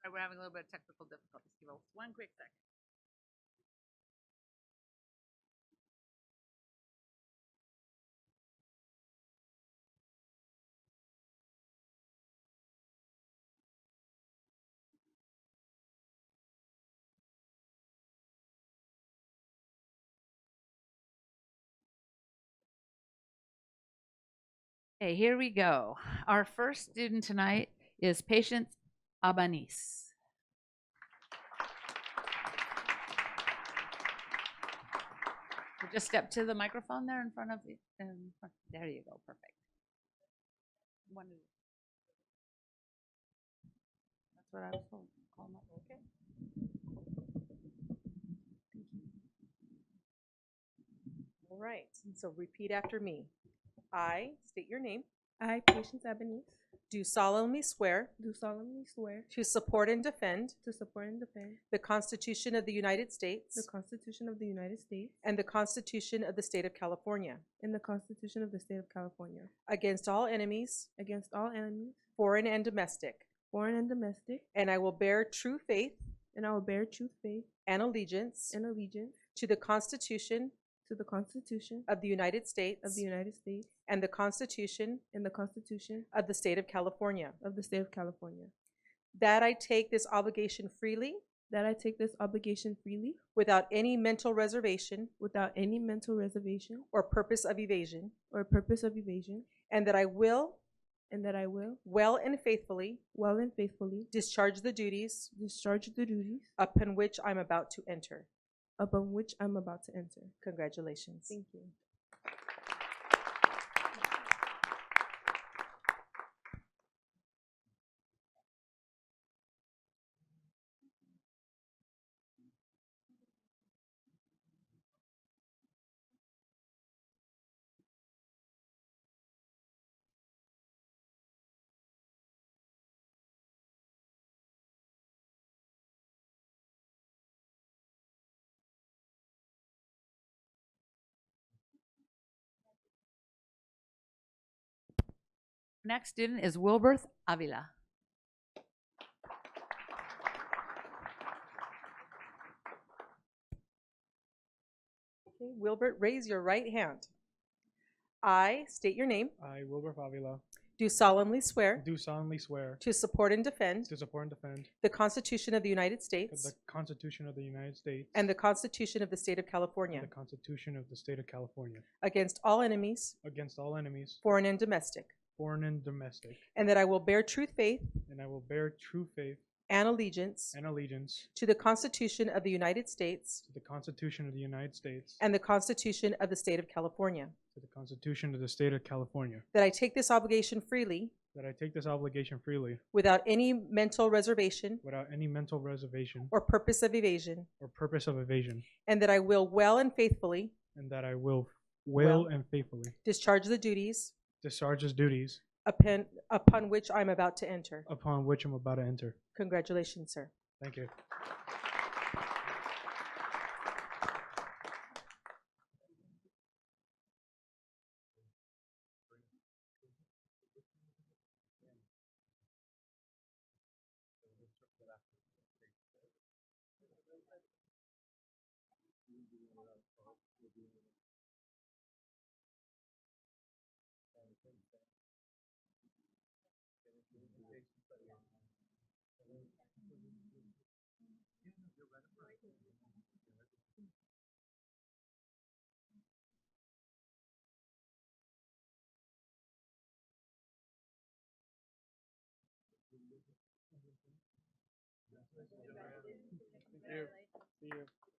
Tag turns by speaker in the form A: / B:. A: Sorry, we're having a little bit of technical difficulties. Give us one quick second. Okay, here we go. Our first student tonight is Patience Abanis. So Just step to the microphone there in front of you. in front- There you go, perfect. One of- That's what I was told. Call them up, Okay.
B: All right, and so repeat after me. I state your name.
C: I, Patience Ebenez,
B: Do solemnly swear
C: do solemnly swear
B: to support and defend
C: to support and defend
B: the Constitution of the United
C: the
B: States
C: Constitution of the United States
B: and the Constitution of the State of California
C: and the Constitution of the State of California
B: against all enemies,
C: against all enemies,
B: foreign and domestic,
C: foreign and domestic,
B: and I will bear true faith
C: and I will bear true faith
B: and allegiance
C: and allegiance
B: to the Constitution
C: to the Constitution
B: of the United
C: of
B: States
C: the United States
B: and the Constitution
C: and the Constitution
B: of the State of California,
C: of the State of California,
B: that I take this obligation freely
C: that I take this obligation freely
B: without any mental reservation
C: without any mental reservation
B: or purpose of evasion,
C: or purpose of evasion,
B: and that I will
C: and that I will,
B: well and faithfully
C: well and faithfully,
B: discharge the duties
C: discharge the duties
B: upon which I'm about to enter.
C: upon which I'm about to enter.
B: Congratulations.
C: Thank you.
A: Next student is Wilberth Avila.
B: Okay, Wilbert, raise your right hand. I state your name,
D: I, Wilbur Favila,
B: do solemnly swear
D: do solemnly swear
B: to support and defend
D: to support and defend
B: the Constitution of the United
D: the
B: States
D: Constitution of the United States
B: and the Constitution of the State of
D: and
B: California
D: the Constitution of the State of California
B: against all enemies,
D: against all enemies,
B: foreign and domestic,
D: foreign and domestic,
B: and that I will bear true faith
D: and I will bear true faith
B: and allegiance
D: and allegiance
B: to the Constitution of the United States
D: to the Constitution of the United States
B: and the Constitution of the State of California,
D: to the Constitution of the State of California,
B: that I take this obligation freely
D: that I take this obligation freely
B: without any mental reservation
D: without any mental reservation
B: or purpose of evasion,
D: or purpose of evasion,
B: and that I will well and faithfully
D: and that I will will
B: Well-
D: and faithfully
B: discharge the duties
D: discharge the duties
B: upon, upon which I'm about to enter.
D: upon which I'm about to enter.
B: Congratulations, sir.
D: Thank you. Thank you.